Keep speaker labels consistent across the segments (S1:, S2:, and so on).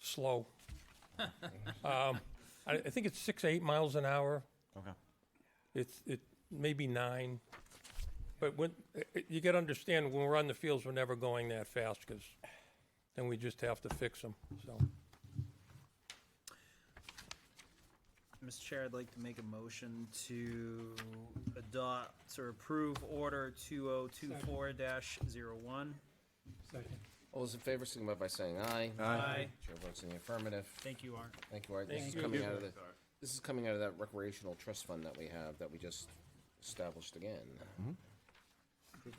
S1: slow. Um, I, I think it's six, eight miles an hour.
S2: Okay.
S1: It's, it may be nine. But when, i- i- you gotta understand, when we're on the fields, we're never going that fast, because then we just have to fix them, so.
S3: Mr. Chair, I'd like to make a motion to adopt or approve order two oh two four dash zero one.
S4: All those in favor signify by saying aye.
S3: Aye.
S4: Chair votes in the affirmative.
S3: Thank you, Art.
S4: Thank you, Art. This is
S1: Thank
S4: coming
S1: you.
S4: out of the, this is coming out of that recreational trust fund that we have, that we just established again.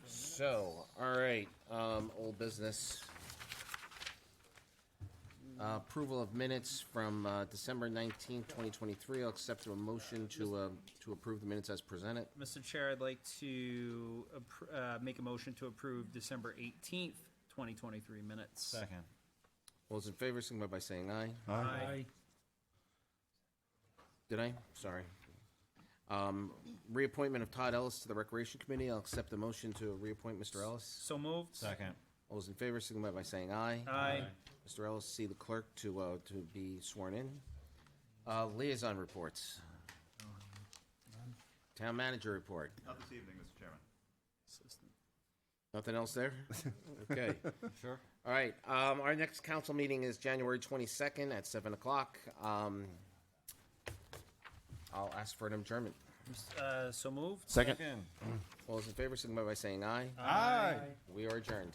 S4: So, all right, um, old business. Uh, Approval of minutes from, uh, December nineteenth, twenty twenty-three. I'll accept a motion to, uh, to approve the minutes as presented.
S3: Mr. Chair, I'd like to, appr- uh, make a motion to approve December eighteenth, twenty twenty-three minutes.
S2: Second.
S4: All those in favor signify by saying aye.
S3: Aye.
S4: Did I? Sorry. Um, reappointment of Todd Ellis to the Recreation Committee. I'll accept the motion to reappoint Mr. Ellis.
S3: So moved.
S2: Second.
S4: All those in favor, signify by saying aye.
S3: Aye.
S4: Mr. Ellis, see the clerk to, uh, to be sworn in. Uh, liaison reports. Town manager report.
S2: Not this evening, Mr. Chairman.
S4: Nothing else there? Okay.
S2: Sure.
S4: All right, um, our next council meeting is January twenty-second at seven o'clock. Um, I'll ask for an adjournment.
S3: Uh, so moved.
S2: Second.
S4: All those in favor, signify by saying aye.
S2: Aye.
S4: We are adjourned.